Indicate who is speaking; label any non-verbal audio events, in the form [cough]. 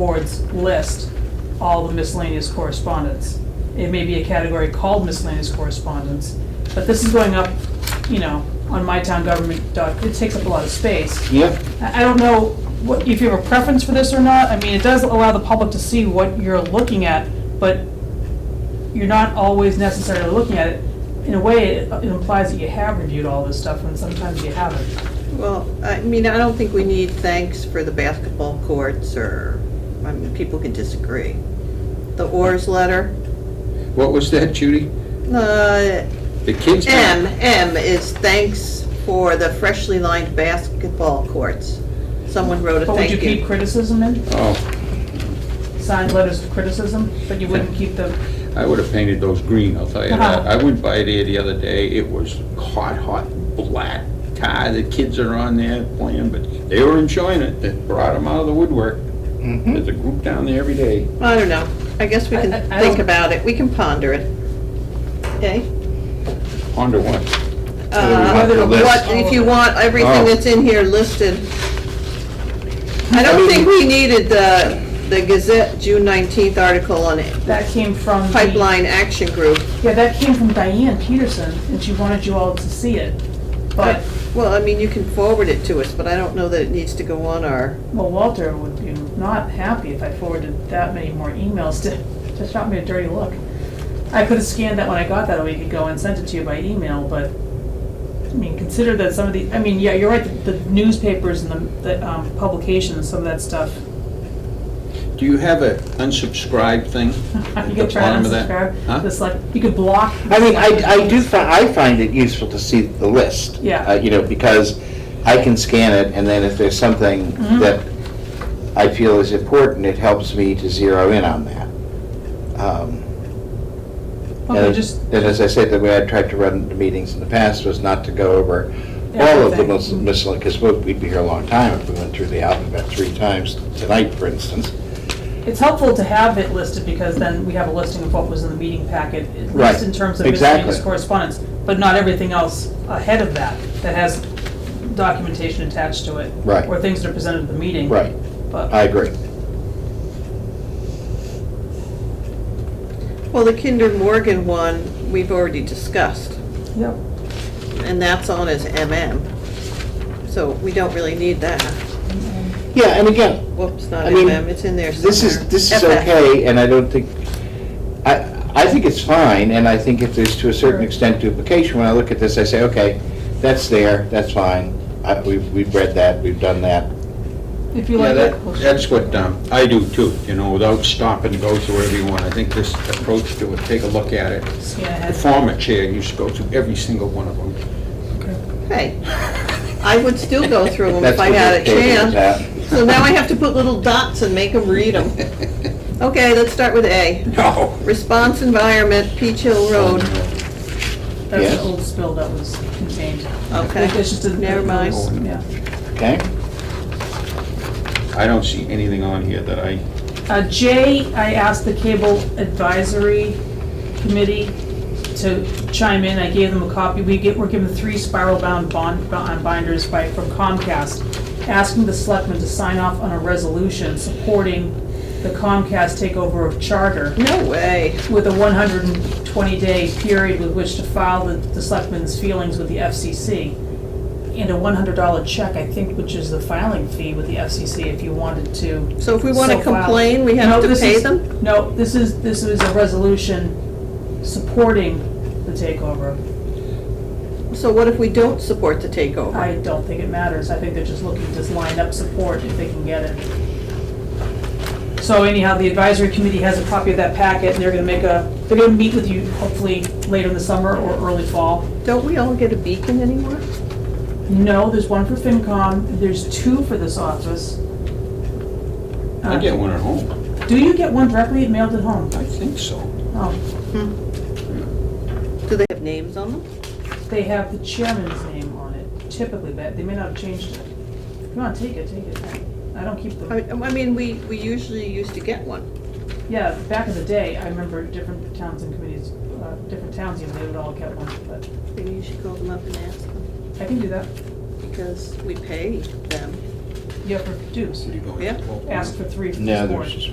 Speaker 1: boards list all the miscellaneous correspondence. It may be a category called miscellaneous correspondence, but this is going up, you know, on mytowngovernment dot, it takes up a lot of space.
Speaker 2: Yep.
Speaker 1: I, I don't know what, if you have a preference for this or not, I mean, it does allow the public to see what you're looking at, but you're not always necessarily looking at it. In a way, it it implies that you have reviewed all this stuff, and sometimes you haven't.
Speaker 3: Well, I mean, I don't think we need thanks for the basketball courts or, I mean, people can disagree. The Orr's letter,
Speaker 2: What was that, Judy?
Speaker 3: uh,
Speaker 2: The kids?
Speaker 3: M, M is thanks for the freshly lined basketball courts. Someone wrote a
Speaker 1: But would you
Speaker 3: thank
Speaker 1: keep
Speaker 3: you.
Speaker 1: criticism in,
Speaker 2: Oh,
Speaker 1: signed letters of criticism, but you wouldn't keep the
Speaker 2: I would have painted those green, I'll tell you
Speaker 1: Uh-huh.
Speaker 2: that. I went by there the other day, it was hot, hot black tie. The kids are on there playing, but they were enjoying it. It brought them out of the woodwork.
Speaker 1: Mm-hmm.
Speaker 2: There's a group down there every day.
Speaker 3: I don't know. I guess we can
Speaker 1: I- I- I
Speaker 3: think
Speaker 1: don't-
Speaker 3: about it. We can ponder it. Okay?
Speaker 2: Ponder what?
Speaker 3: Uh,
Speaker 2: Whether to list.
Speaker 3: what- If you want everything
Speaker 2: Oh.
Speaker 3: that's in here listed. I don't think we needed the, the Gazette June nineteenth article on it.
Speaker 1: That came from. the-
Speaker 3: Pipeline Action Group.
Speaker 1: Yeah, that came from Diane Peterson, and she wanted you all to see it. But,
Speaker 3: Well, I mean, you can forward it to us, but I don't know that it needs to go on our,
Speaker 1: well, Walter would be not happy if I forwarded that many more emails to, to shot me a dirty look. I could have scanned that when I got that a week ago and sent it to you by email, but, I mean, consider that some of the, I mean, yeah, you're right, the the newspapers and the, the um, publications, some of that stuff.
Speaker 2: Do you have a unsubscribe thing?
Speaker 1: [laughs]
Speaker 2: at
Speaker 1: You
Speaker 2: the
Speaker 1: could try and
Speaker 2: bottom of that? Huh?
Speaker 1: unsubscribe, it's like, you could block.
Speaker 4: I mean, I, I do, fi- I find it useful to see the list.
Speaker 1: Yeah.
Speaker 4: Uh, You know, because I can scan it, and then if there's something
Speaker 1: Mhm.
Speaker 4: that I feel is important, it helps me to zero in on that. Um,
Speaker 1: Okay,
Speaker 4: and-
Speaker 1: just,
Speaker 4: And as I said, the way I tried to run the meetings in the past was not to go over all of the
Speaker 1: Everything.
Speaker 4: miscellaneous, because we'd be here a long time if we went through the alphabet three times tonight, for instance.
Speaker 1: It's helpful to have it listed because then we have a listing of what was in the meeting packet, at least
Speaker 4: Right,
Speaker 1: in terms of
Speaker 4: exactly.
Speaker 1: miscellaneous correspondence, but not everything else ahead of that, that has documentation attached to it.
Speaker 4: Right.
Speaker 1: Or things that are presented at the meeting.
Speaker 4: Right, Uh, I
Speaker 1: But,
Speaker 4: agree.
Speaker 3: well, the Kinder Morgan one, we've already discussed,
Speaker 1: yep,
Speaker 3: and that's on as MM. So we don't really need that.
Speaker 4: Yeah, and again,
Speaker 3: Whoops, not
Speaker 4: I mean,
Speaker 3: MM, it's in there somewhere.
Speaker 4: This is, this is
Speaker 3: FF.
Speaker 4: okay, and I don't think, I, I think it's fine, and I think if there's to a certain
Speaker 1: Sure.
Speaker 4: extent duplication, when I look at this, I say, okay, that's there, that's fine, I, we've, we've read that, we've done that.
Speaker 1: if you
Speaker 2: Yeah,
Speaker 1: like
Speaker 2: that,
Speaker 1: that. we'll-
Speaker 2: that's what um, I do too, you know, without stopping to go through every one. I think this approach to it, take a look at it.
Speaker 1: Scan
Speaker 2: The
Speaker 1: ahead.
Speaker 2: former chair used to go through every single one of them.
Speaker 3: Hey, I would still go through them if
Speaker 4: That's
Speaker 3: I
Speaker 4: what
Speaker 3: had a
Speaker 4: this table is
Speaker 3: chance.
Speaker 4: at.
Speaker 3: So now I have to put little dots and make them read them. Okay, let's start with A.
Speaker 2: No.
Speaker 3: Response Environment, Peach Hill Road.
Speaker 1: That's
Speaker 4: Yes.
Speaker 1: the old spill that was contained.
Speaker 3: Okay,
Speaker 1: It's just a-
Speaker 3: never mind.
Speaker 1: Yeah.
Speaker 4: Okay?
Speaker 2: I don't see anything on here that I,
Speaker 1: Uh, Jay, I asked the Cable Advisory Committee to chime in, I gave them a copy. We get, we're given three spiral-bound bond, bond binders by, from Comcast, asking the selectmen to sign off on a resolution supporting the Comcast takeover of Charter
Speaker 3: No way.
Speaker 1: with a one hundred and twenty day period with which to file the, the selectmen's feelings with the FCC. And a one hundred dollar check, I think, which is the filing fee with the FCC if you wanted to
Speaker 3: So if we want to
Speaker 1: so filed.
Speaker 3: complain, we
Speaker 1: No,
Speaker 3: have to
Speaker 1: this
Speaker 3: pay
Speaker 1: is-
Speaker 3: them?
Speaker 1: No, this is, this is a resolution supporting the takeover.
Speaker 3: So what if we don't support the takeover?
Speaker 1: I don't think it matters, I think they're just looking to line up support if they can get it. So anyhow, the advisory committee has a copy of that packet, and they're gonna make a, they're gonna meet with you hopefully later in the summer or early fall.
Speaker 3: Don't we all get a beacon anymore?
Speaker 1: No, there's one for FinCom, there's two for this office.
Speaker 2: I
Speaker 1: Uh,
Speaker 2: get one at home.
Speaker 1: Do you get one directly mailed at home?
Speaker 2: I think so.
Speaker 1: Oh,
Speaker 3: Do they have names on them?
Speaker 1: they have the chairman's name on it typically, but they may not have changed it. Come on, take it, take it. I don't keep
Speaker 3: I
Speaker 1: them.
Speaker 3: I mean, we, we usually used to get one.
Speaker 1: Yeah, back in the day, I remember different towns and committees, uh, different towns, even they would all get one, but
Speaker 3: Maybe you should call them up and ask them,
Speaker 1: I can do that.
Speaker 3: because we pay them.
Speaker 2: you have to reduce.
Speaker 5: Yeah.
Speaker 2: Ask for three, four.
Speaker 1: No, there's